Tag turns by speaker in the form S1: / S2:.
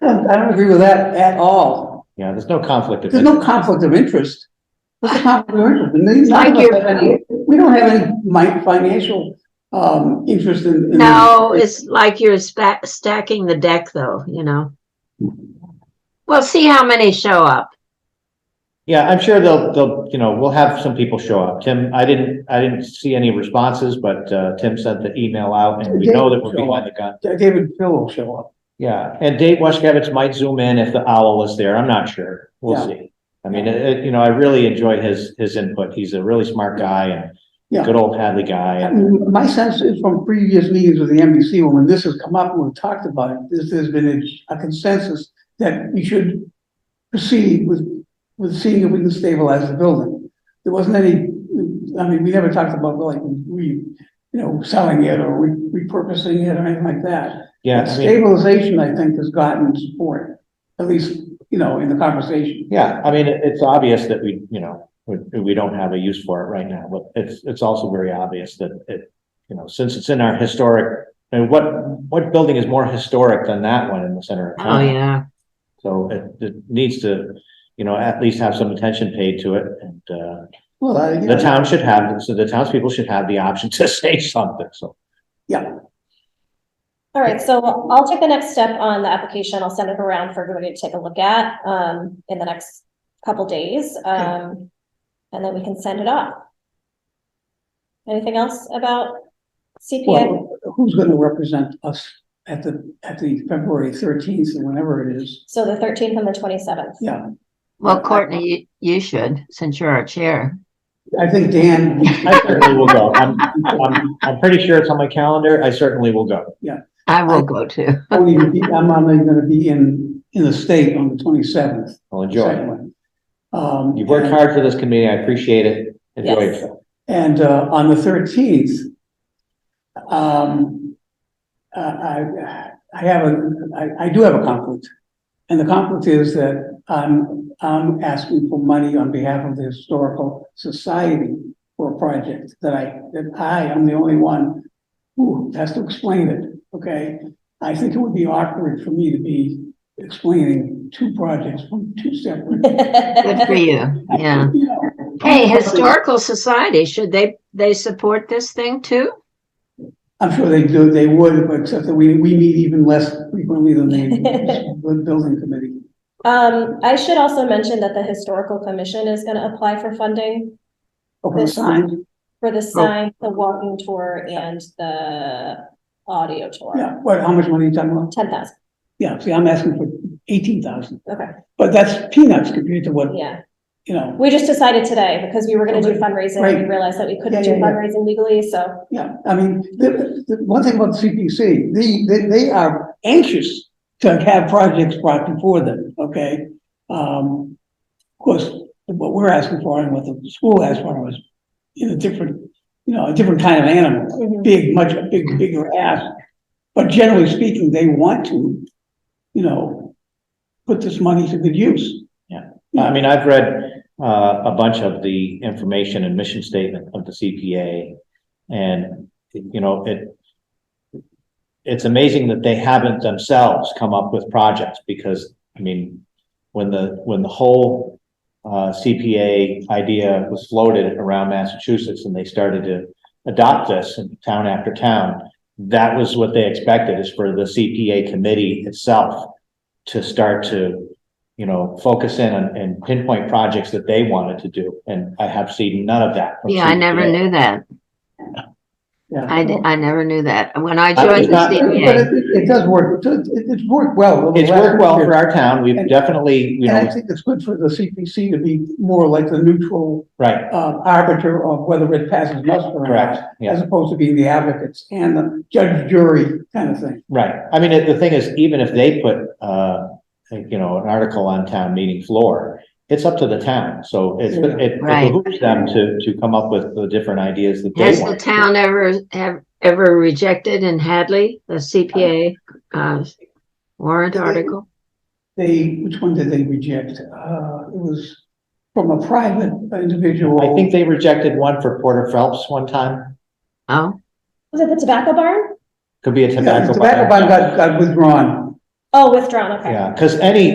S1: I don't I don't agree with that at all.
S2: Yeah, there's no conflict of
S1: There's
S2: interest.
S1: no conflict of interest. What's the conflict of interest? And these- none of
S3: Like
S1: us
S3: your-
S1: have any- We don't have any mi- financial, um, interest in. in-
S3: No, it's like you're spa- stacking the deck though, you know? Well, see how many show up.
S2: Yeah, I'm sure they'll, they'll, you know, we'll have some people show up. Tim, I didn't, I didn't see any responses, but, uh, Tim sent the email out and we know that we're behind the gun.
S1: David Phil will show up.
S2: Yeah, and Dave Waschkevitz might zoom in if the owl is there. I'm not sure. We'll see. I mean, it, it- you know, I really enjoy his, his input. He's a really smart guy and
S1: Yeah.
S2: good old Hadley guy.
S1: I
S2: And
S1: mean, my sense is from previous meetings with the NBC, when this has come up and we've talked about it, there's, there's been a consensus that we should proceed with, with seeing if we can stabilize the building. There wasn't any, I mean, we never talked about like, we, you know, selling it or re- repurposing it or anything like that.
S2: yeah, I mean,
S1: Stabilization, I think, has gotten support, at least, you know, in the conversation.
S2: yeah, I mean, it- it's obvious that we, you know, we, we don't have a use for it right now, but it's, it's also very obvious that it, you know, since it's in our historic, and what, what building is more historic than that one in the center of town?
S3: Oh, yeah.
S2: So it, it needs to, you know, at least have some attention paid to it and, uh,
S1: Well, I.
S2: The town should have, so the townspeople should have the option to say something, so.
S4: All right, so I'll take the next step on the application. I'll send it around for everybody to take a look at, um, in the next couple days. Um, and then we can send it off. Anything else about CPA?
S1: Well, who's gonna represent us at the, at the February thirteenth or whenever it is?
S4: So the thirteenth and the twenty-seventh.
S1: Yeah,
S3: Well, Courtney, you, you should, since you're our chair.
S1: I think Dan,
S2: I certainly will go. I'm, I'm, I'm pretty sure it's on my calendar. I certainly will go.
S3: I will go too.
S1: won't even be- I'm not even gonna be in, in the state on the twenty-seventh.
S2: I'll enjoy.
S1: Um.
S2: You've worked hard for this committee. I appreciate it. Enjoy
S4: Yes.
S2: yourself.
S1: And, uh, on the thirteenth, um, uh, I, I have a, I, I do have a conflict. And the conflict is that I'm, I'm asking for money on behalf of the Historical Society for a project that I, that I am the only one who has to explain it, okay? I think it would be awkward for me to be explaining two projects from two separate.
S3: Good for you. Yeah.
S1: you know,
S3: Hey, Historical Society, should they, they support this thing too?
S1: I'm sure they do, they would, but except that we, we meet even less frequently than they, the building committee.
S4: Um, I should also mention that the historical commission is gonna apply for funding
S1: Okay, sign,
S4: for the sign, the walking tour and the audio tour.
S1: yeah, what, how much money are you talking about?
S4: Ten thousand,
S1: Yeah, see, I'm asking for eighteen thousand,
S4: okay,
S1: but that's peanuts compared to what,
S4: yeah.
S1: you know,
S4: We just decided today because we were gonna do
S1: Okay.
S4: fundraising
S1: Right.
S4: and we realized that we couldn't
S1: Yeah, yeah,
S4: do
S1: yeah.
S4: fundraising legally, so.
S1: yeah, I mean, the, the, one thing about the CPC, they, they, they are anxious to have projects brought before them, okay? Um, of course, what we're asking for and what the school asked for was, you know, different, you know, a different kind of animal. big, much, a big, bigger ask. But generally speaking, they want to, you know, put this money to good use.
S2: I mean, I've read, uh, a bunch of the information and mission statement of the CPA. And, you know, it, it's amazing that they haven't themselves come up with projects because, I mean, when the, when the whole uh, CPA idea was floated around Massachusetts and they started to adopt this in town after town, that was what they expected is for the CPA committee itself to start to, you know, focus in on- and pinpoint projects that they wanted to do. And I have seen none of that. from
S3: Yeah, I never
S2: CPA.
S3: knew that.
S1: Yeah.
S3: I, di- I never knew that. When I
S2: I-
S3: joined
S2: it's
S3: the
S2: not-
S1: But
S3: CPA,
S1: it, it does work, it, it's worked well. over the
S2: It's worked well
S1: last
S2: for
S1: year.
S2: our town. We've
S1: And-
S2: definitely, you
S1: And I
S2: know,
S1: think it's good for the CPC to be more like the neutral,
S2: right,
S1: uh, arbiter of whether it passes muster or
S2: correct,
S1: not.
S2: yeah.
S1: As opposed to being the advocates and the judge jury kind of thing.
S2: Right, I mean, the thing is, even if they put, uh, you know, an article on town meeting floor, it's up to the town, so it's,
S1: Yeah.
S2: it
S3: Right.
S2: behooves them to, to come up with the different ideas that they
S3: has the
S2: want.
S3: town ever, have, ever rejected in Hadley, the CPA, uh, warrant article?
S1: They, which one did they reject? Uh, it was from a private individual.
S2: I think they rejected one for Porter Phelps one time,
S3: Oh,
S4: Was it the tobacco barn?
S2: could be a
S1: Yeah, the
S2: tobacco.
S1: tobacco
S2: ban.
S1: ban got, got withdrawn.
S4: Oh, withdrawn, okay.
S2: Yeah, because any,